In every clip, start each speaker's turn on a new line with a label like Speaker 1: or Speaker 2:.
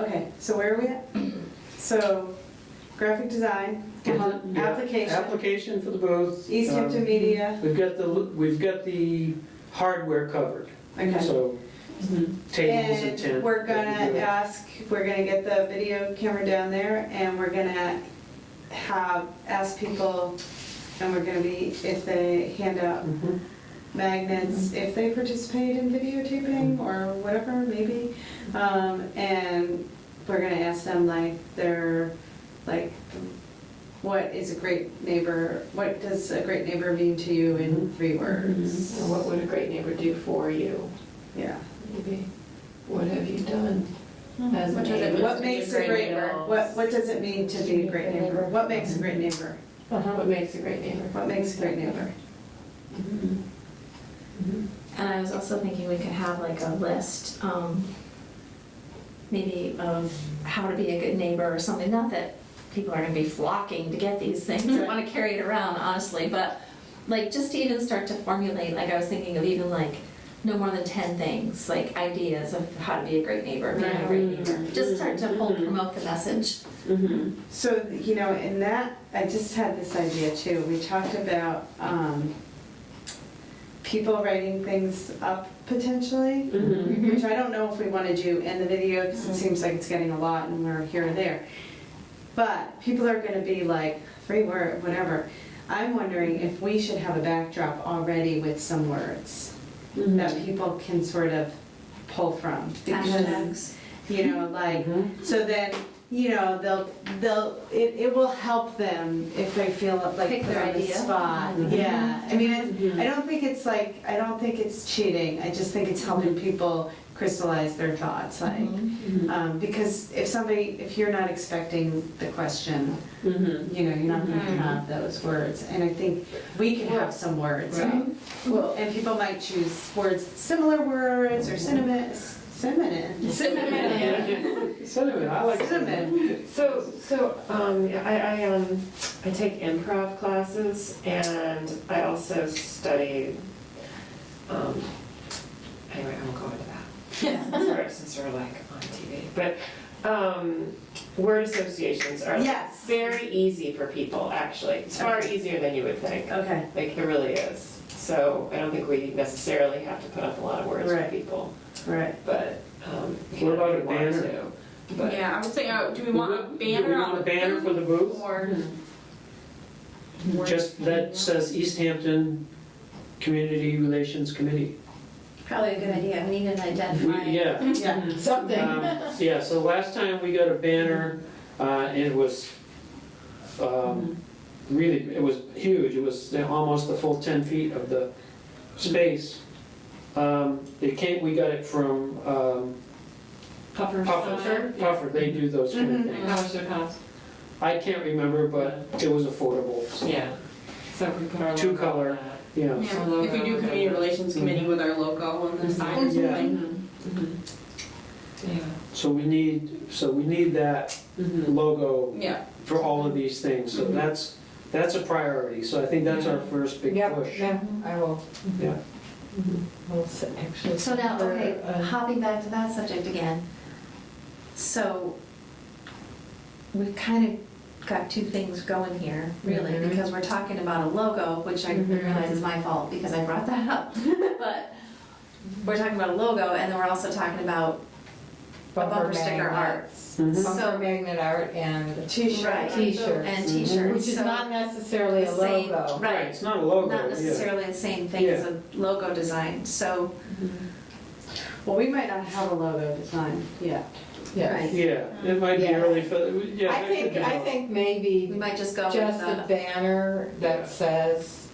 Speaker 1: Okay, so where are we at? So graphic design, um,
Speaker 2: Yeah,
Speaker 1: application,
Speaker 2: Application for the both.
Speaker 1: East
Speaker 2: Um,
Speaker 1: Hampton Media,
Speaker 2: We've got the, we've got the hardware covered,
Speaker 1: okay. Mm-hmm.
Speaker 2: so tables and tent.
Speaker 1: And we're gonna
Speaker 2: that'd be good.
Speaker 1: ask, we're gonna get the video camera down there and we're gonna have, ask people, and we're gonna be, if they hand out
Speaker 2: Mhm.
Speaker 1: magnets if they participate in videotaping or whatever, maybe. Um, and we're gonna ask them like their, like, what is a great neighbor, what does a great neighbor mean to you in three words?
Speaker 3: So What would a great neighbor do for you?
Speaker 1: Yeah.
Speaker 3: Maybe, what have you done as a
Speaker 4: What does it
Speaker 3: neighbor?
Speaker 4: mean?
Speaker 1: What makes a great neighbor? What, what does it mean to be a great neighbor? What makes a great neighbor?
Speaker 3: What makes a great neighbor?
Speaker 1: What makes a great neighbor?
Speaker 4: And I was also thinking we could have like a list, um, maybe of how to be a good neighbor or something. Not that people are gonna be flocking to get these things and wanna carry it around, honestly, but like just to even start to formulate, like I was thinking of even like no more than ten things, like ideas of how to be a great neighbor, being a great neighbor. Just start to hold, promote the message.
Speaker 1: So, you know, in that, I just had this idea too. We talked about um, people writing things up potentially, which I don't know if we want to do in the video because it seems like it's getting a lot and we're here and there. But people are going to be like, three word, whatever. I'm wondering if we should have a backdrop already with some words that people can sort of pull from. Because,
Speaker 4: Hashtags.
Speaker 1: you know, like,
Speaker 2: Mhm.
Speaker 1: so then, you know, they'll, they'll, it, it will help them if they feel like
Speaker 4: Pick
Speaker 1: put
Speaker 4: their
Speaker 1: on the
Speaker 4: idea. Mm-hmm.
Speaker 1: spot.
Speaker 2: Mhm.
Speaker 1: Yeah, I mean, it's- I don't think it's like, I don't think it's cheating, I just think it's helping people crystallize their thoughts, like,
Speaker 4: Mhm.
Speaker 1: um, because if somebody, if you're not expecting the question, you know, you're not gonna
Speaker 4: Mhm.
Speaker 1: have those words, and I think we can have some words.
Speaker 2: Right.
Speaker 1: Well, and people might choose words, similar words, or cinnamon, cinnamon.
Speaker 2: Cinnamon, I like cinnamon.
Speaker 1: Cinnamon,
Speaker 3: So, so, um, I, I, um, I take improv classes and I also study, um, anyway, I won't go into that. Since we're- Since we're like on TV, but, um, word associations are
Speaker 1: yes.
Speaker 3: very easy for people, actually. It's far easier than you would think.
Speaker 1: Okay,
Speaker 3: Like, it really is. So I don't think we necessarily have to put up a lot of words for
Speaker 1: Right.
Speaker 3: people,
Speaker 1: right.
Speaker 3: but, um, you
Speaker 2: What
Speaker 3: know,
Speaker 2: about
Speaker 3: if
Speaker 2: a
Speaker 3: you want
Speaker 2: banner?
Speaker 3: to. But,
Speaker 5: Yeah, I would say, uh, do we want a
Speaker 2: Do we
Speaker 5: banner
Speaker 2: want
Speaker 5: on
Speaker 2: a
Speaker 5: the
Speaker 2: banner
Speaker 5: booth?
Speaker 2: for the booth?
Speaker 5: Or
Speaker 1: Mm-hmm.
Speaker 2: Just that says East Hampton Community Relations Committee.
Speaker 4: Probably a good idea. We need an
Speaker 2: We-
Speaker 4: identifier.
Speaker 2: Yeah.
Speaker 1: Yeah.
Speaker 3: something.
Speaker 2: Um, Yeah, so last time we got a banner, uh, and it was, um, really, it was huge, it was the- almost the full ten feet of the space. Um, It came, we got it from um,
Speaker 3: Puffer.
Speaker 2: Puffer, Puffer, they do those kind
Speaker 1: Mhm.
Speaker 2: of
Speaker 5: Mm-hmm.
Speaker 2: things.
Speaker 3: How much it cost?
Speaker 2: I can't remember, but it was affordable, so,
Speaker 3: Yeah. So if we put our.
Speaker 2: Two
Speaker 3: logo on
Speaker 2: color.
Speaker 3: that.
Speaker 2: you know.
Speaker 5: yeah, if we do community relations committee with our logo on the side or
Speaker 2: Mhm. Yeah.
Speaker 5: something.
Speaker 3: Yeah.
Speaker 2: So we need, so we need that
Speaker 3: Mhm.
Speaker 2: logo
Speaker 5: Yeah, Mm-hmm.
Speaker 2: for all of these things, so that's, that's a priority, so I think that's our first big push.
Speaker 6: Yeah, I will.
Speaker 2: Yeah.
Speaker 6: Well, s- actually.
Speaker 4: So now,
Speaker 6: for,
Speaker 4: okay,
Speaker 6: uh,
Speaker 4: hopping back to that subject again. So we've kind of got two things going here, really,
Speaker 6: Mhm.
Speaker 4: because we're talking about a logo, which I
Speaker 6: Mm-hmm.
Speaker 3: Mhm.
Speaker 4: realize is my fault because I brought that up. But we're talking about a logo and then we're also talking about, bumper sticker
Speaker 6: magnets,
Speaker 2: Mhm.
Speaker 6: Bumper
Speaker 4: So-
Speaker 6: magnet art and
Speaker 4: Right.
Speaker 6: t-shirts.
Speaker 4: and
Speaker 2: Mhm.
Speaker 4: t-shirts.
Speaker 6: Mm-hmm. Which is
Speaker 4: so
Speaker 6: not necessarily
Speaker 4: the
Speaker 6: a
Speaker 4: same-
Speaker 6: logo.
Speaker 2: Right,
Speaker 4: Right,
Speaker 2: it's not a logo,
Speaker 4: not
Speaker 2: yeah.
Speaker 4: necessarily the same thing as a logo design, so,
Speaker 1: Well, we might not have a logo design yet.
Speaker 6: Yes.
Speaker 4: Right.
Speaker 2: Yeah, it might be
Speaker 6: Yeah.
Speaker 2: early for, yeah.
Speaker 6: I
Speaker 2: that could
Speaker 6: think,
Speaker 2: be
Speaker 6: I
Speaker 2: all-
Speaker 6: think
Speaker 4: we
Speaker 6: maybe
Speaker 4: might just go with
Speaker 6: just a
Speaker 4: the
Speaker 6: banner
Speaker 2: Yeah.
Speaker 6: that says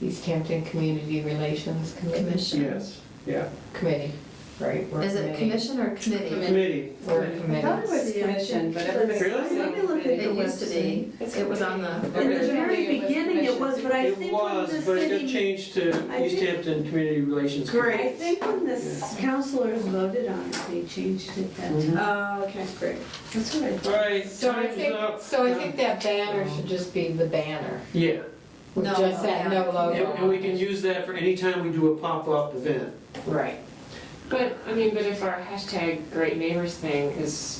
Speaker 6: East Hampton Community Relations Committee,
Speaker 4: commission.
Speaker 2: Yes, yeah.
Speaker 6: Committee, right? we're
Speaker 4: Is it commission or committee?
Speaker 2: Committee.
Speaker 6: We're
Speaker 2: Right.
Speaker 1: I thought it
Speaker 6: committees.
Speaker 1: was commission, but everybody.
Speaker 2: Really?
Speaker 4: It used to be, it was on the
Speaker 5: in the very
Speaker 1: Originally, it was
Speaker 5: beginning it was, but I
Speaker 2: It
Speaker 5: think when the
Speaker 2: was, but it got
Speaker 5: city,
Speaker 2: changed to
Speaker 5: I
Speaker 2: East
Speaker 5: think-
Speaker 2: Hampton Community Relations.
Speaker 5: I
Speaker 2: Committee.
Speaker 5: think when the s- councilors voted on it, they changed it then.
Speaker 2: Mhm.
Speaker 1: Oh, okay, great. That's all right.
Speaker 2: All right,
Speaker 6: So I
Speaker 2: time's
Speaker 6: think,
Speaker 2: up.
Speaker 6: so I think that banner should just be the banner,
Speaker 2: Yeah,
Speaker 6: with
Speaker 4: No
Speaker 6: just that no
Speaker 4: logo.
Speaker 2: and
Speaker 6: logo.
Speaker 2: and we can use that for any time we do a pop-up event.
Speaker 6: Right.
Speaker 3: But, I mean, but if our hashtag great neighbors thing is